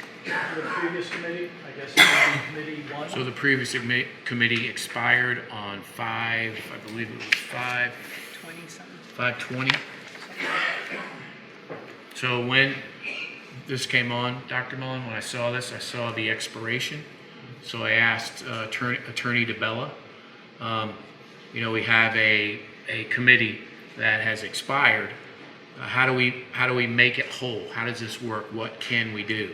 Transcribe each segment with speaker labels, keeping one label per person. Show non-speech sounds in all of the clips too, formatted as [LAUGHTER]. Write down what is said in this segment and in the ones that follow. Speaker 1: for the previous committee, I guess it would be committee one.
Speaker 2: So the previous admi- committee expired on five, I believe it was five,
Speaker 3: twenty something.
Speaker 2: five twenty. So when this came on, Dr. Mullen, when I saw this, I saw the expiration. So I asked uh, Attorney, Attorney DeBella, um, you know, we have a, a committee that has expired. Uh, How do we, how do we make it whole? How does this work? What can we do?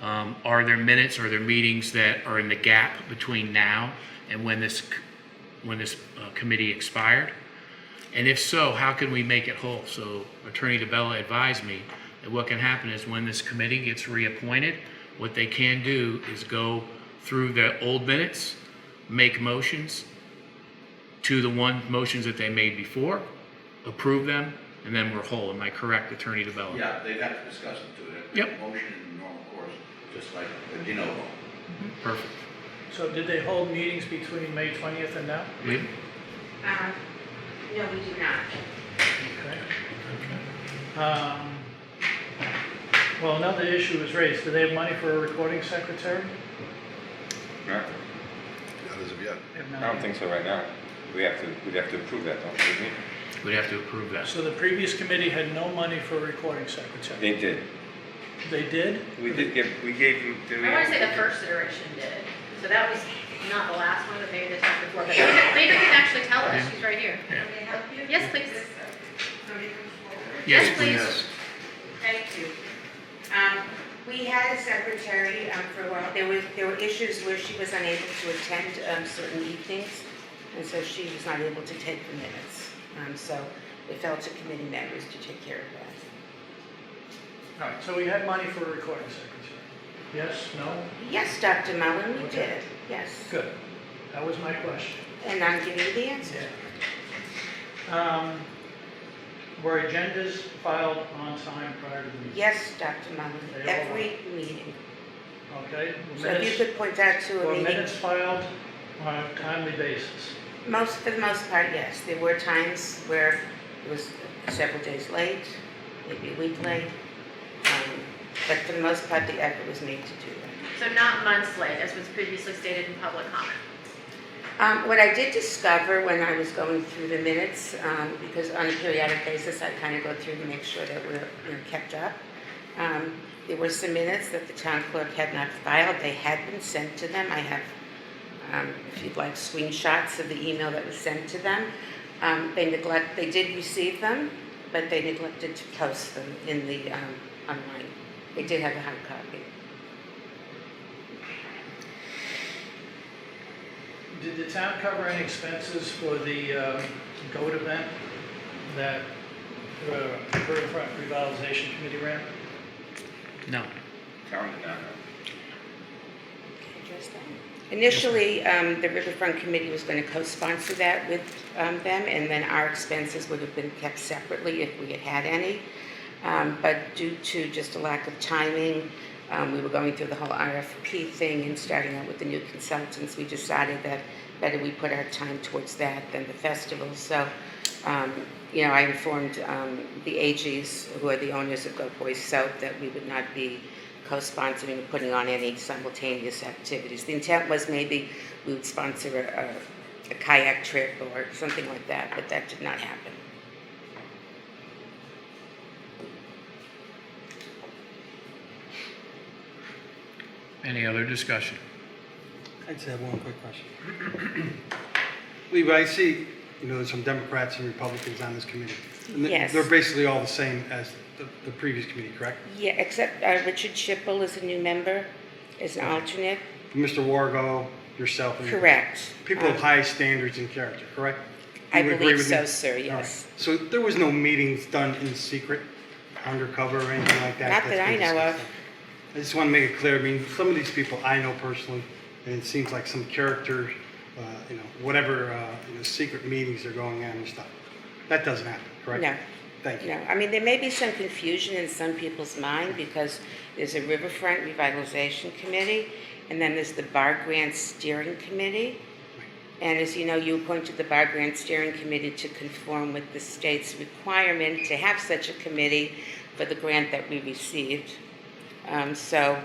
Speaker 2: Um, Are there minutes, are there meetings that are in the gap between now and when this, c- when this uh, committee expired? And if so, how can we make it whole? So Attorney DeBella advised me that what can happen is when this committee gets reappointed, what they can do is go through the old minutes, make motions to the one, motions that they made before, approve them, and then we're whole. Am I correct, Attorney DeBella?
Speaker 4: Yeah, they'd have to discuss it too. It'd be a
Speaker 2: Yep.
Speaker 4: Motion in the normal course, just like a de novo.
Speaker 2: Perfect.
Speaker 1: So did they hold meetings between May twentieth and now?
Speaker 2: Leave?
Speaker 5: Um, no, we do not.
Speaker 1: Okay. Um, Well, another issue was raised, do they have money for a recording secretary?
Speaker 6: Not as of yet.
Speaker 1: They have
Speaker 7: I
Speaker 1: none.
Speaker 7: don't think so right now. We have to, we'd have to approve that, don't we?
Speaker 2: We'd have to approve that.
Speaker 1: So the previous committee had no money for a recording secretary?
Speaker 7: They did.
Speaker 1: They did?
Speaker 7: We did give, we gave you, did we?
Speaker 5: I wanna say the first iteration did, so that was not the last one, but maybe the time before, but later, later you can actually tell us, she's right here.
Speaker 2: Yeah.
Speaker 5: Yes, please.
Speaker 2: Yes,
Speaker 5: Yes,
Speaker 2: please.
Speaker 5: please.
Speaker 8: Thank you. Um, We had a secretary um, for a while. There was, there were issues where she was unable to attend um, certain evenings, and so she was not able to take the minutes. Um, So it fell to committee members to take care of that.
Speaker 1: All right, so we had money for a recording secretary? Yes, no?
Speaker 8: Yes, Dr. Mullin, we
Speaker 1: Okay.
Speaker 8: did, yes.
Speaker 1: Good. That was my question.
Speaker 8: And I'm giving you the answer.
Speaker 1: Um, Were agendas filed on time prior to the meeting?
Speaker 8: Yes, Dr. Mullin,
Speaker 1: They all
Speaker 8: every meeting.
Speaker 1: Okay?
Speaker 8: So if you
Speaker 1: Minutes,
Speaker 8: could point out to a
Speaker 1: were
Speaker 8: meeting,
Speaker 1: minutes filed on a timely basis?
Speaker 8: most, for the most part, yes. There were times where it was several days late, maybe a week late. Um, But for the most part, the effort was made to do that.
Speaker 5: So not months late, as was previously stated in public comment.
Speaker 8: Um, What I did discover when I was going through the minutes, um, because on a periodic basis, I kind of go through to make sure that we're, you know, kept up. um, There were some minutes that the town clerk had not filed, they had been sent to them, I have, um, if you'd like, screenshots of the email that was sent to them. Um, They neglect, they did receive them, but they neglected to post them in the, um, online. They did have a hard copy.
Speaker 1: Did the town cover any expenses for the um, goat event that uh, Riverfront Revitalization Committee ran?
Speaker 2: No.
Speaker 7: Town did not know.
Speaker 8: address that? Initially, um, the Riverfront Committee was going to co-sponsor that with um, them, and then our expenses would have been kept separately if we had had any. Um, But due to just a lack of timing, um, we were going through the whole RFP thing and starting out with the new consultants, we decided that better we put our time towards that than the festival. So, um, you know, I informed um, the AGs, who are the owners of Go Boys South, that we would not be co-sponsoring and putting on any simultaneous activities. The intent was maybe we would sponsor a- a, a kayak trip or something like that, but that did not happen.
Speaker 2: Any other discussion?
Speaker 9: I just have one quick question. [CLEARS THROAT] Lee, I see, you know, there's some Democrats and Republicans on this committee. and they-
Speaker 8: Yes.
Speaker 9: They're basically all the same as the, the previous committee, correct?
Speaker 8: Yeah, except uh, Richard Schipple is a new member, is an alternate.
Speaker 9: Mr. Wargo, yourself. and-
Speaker 8: Correct.
Speaker 9: Mm-hmm. People of
Speaker 8: Um,
Speaker 9: high standards and character, correct?
Speaker 8: I
Speaker 9: You would agree
Speaker 8: believe
Speaker 9: with me?
Speaker 8: so, sir,
Speaker 9: All right.
Speaker 8: yes.
Speaker 9: So there was no meetings done in secret, undercover, or anything like that?
Speaker 8: Not
Speaker 9: that's
Speaker 8: that I
Speaker 9: been
Speaker 8: know of.
Speaker 9: discussed? I just want to make it clear, I mean, some of these people I know personally, and it seems like some character, uh, you know, whatever, uh, you know, secret meetings are going on and stuff. That doesn't happen, correct?
Speaker 8: No.
Speaker 9: Thank
Speaker 8: No,
Speaker 9: you.
Speaker 8: I mean, there may be some confusion in some people's mind because there's a Riverfront Revitalization Committee, and then there's the Bar Grant Steering Committee. And as you know, you appointed the Bar Grant Steering Committee to conform with the state's requirement to have such a committee for the grant that we received. Um, So